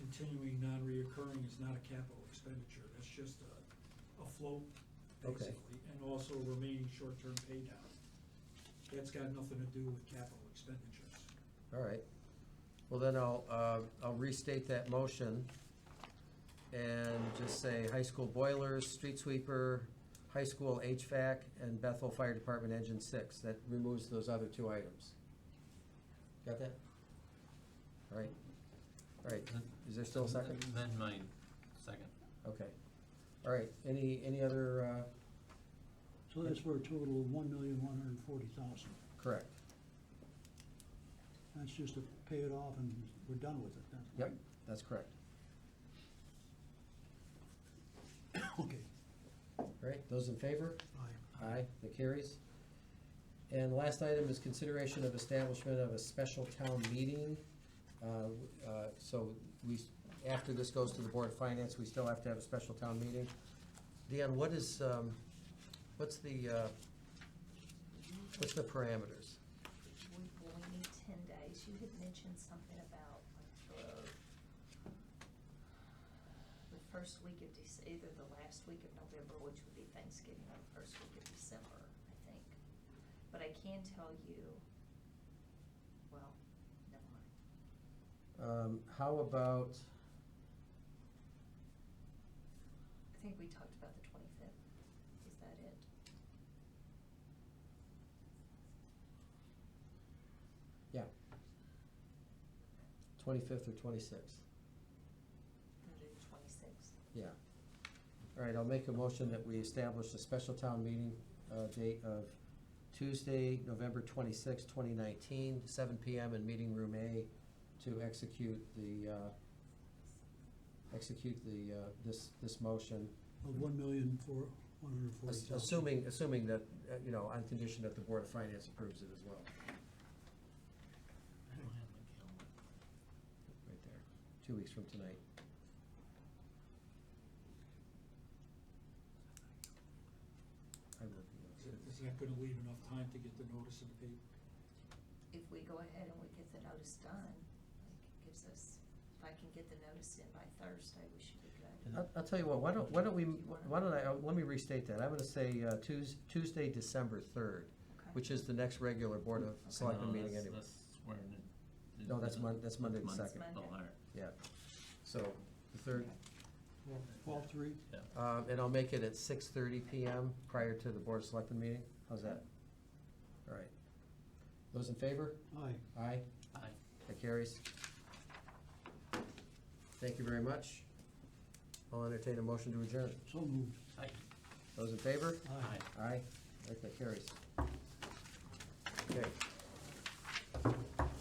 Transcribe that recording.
continuing non-reoccurring is not a capital expenditure, that's just a, a float, Okay. basically, and also remaining short-term pay down. That's got nothing to do with capital expenditures. All right. Well, then I'll, uh, I'll restate that motion and just say high school boilers, street sweeper, high school HVAC, and Bethel Fire Department Engine Six. That removes those other two items. Got that? All right. All right. Is there still a second? Then my second. Okay. All right. Any, any other, uh, So that's for a total of one million, one hundred and forty thousand. correct? That's just to pay it off and we're done with it, that's Yep, that's correct. Okay, All right. Those in favor? aye. Aye, that carries. And last item is consideration of establishment of a special town meeting. Uh, w- uh, So we, s- after this goes to the Board of Finance, we still have to have a special town meeting. Dan, what is, um, what's the, uh, what's the parameters? We, well, we need ten days. You had mentioned something about like the, the first week of Dec, either the last week of November, which would be Thanksgiving, or the first week of December, I think. But I can tell you, well, never mind. Um, How about, I think we talked about the twenty-fifth. Is that it? yeah, 25th or 26th? We'll do the twenty-sixth. Yeah. All right, I'll make a motion that we establish a special town meeting uh, date of Tuesday, November twenty nineteen, seven PM in Meeting Room A to execute the, uh, execute the, uh, this, this motion. Of one million, four, one hundred and forty ass- thousand. Assuming, assuming that, uh, you know, on condition that the Board of Finance approves it as well. I don't have my Right there, two weeks from tonight. I will be. Is- Is that gonna leave enough time to get the notice in the paper? If we go ahead and we get the notice done, like it gives us, if I can get the notice in by Thursday, we should be good. I'll, I'll tell you what, why don't, why don't we, why don't I, uh, let me restate that, I'm gonna say uh, Tues- Tuesday, December third, Okay. which is the next regular Board of calendar. Selectmen No, meeting that's- anyway. that's where it- No, that's Mon- that's Monday the Monday. second. Oh, all right, Yeah, so, the third, Twelve, three, yeah. uh, and I'll make it at six thirty PM prior to the Board of Selectmen meeting, how's that? All right. Those in favor? aye. Aye, Aye. that carries. Thank you very much. I'll entertain a motion to adjourn, So moved, Aye. those in favor? aye. Aye. Aye, All right, that carries.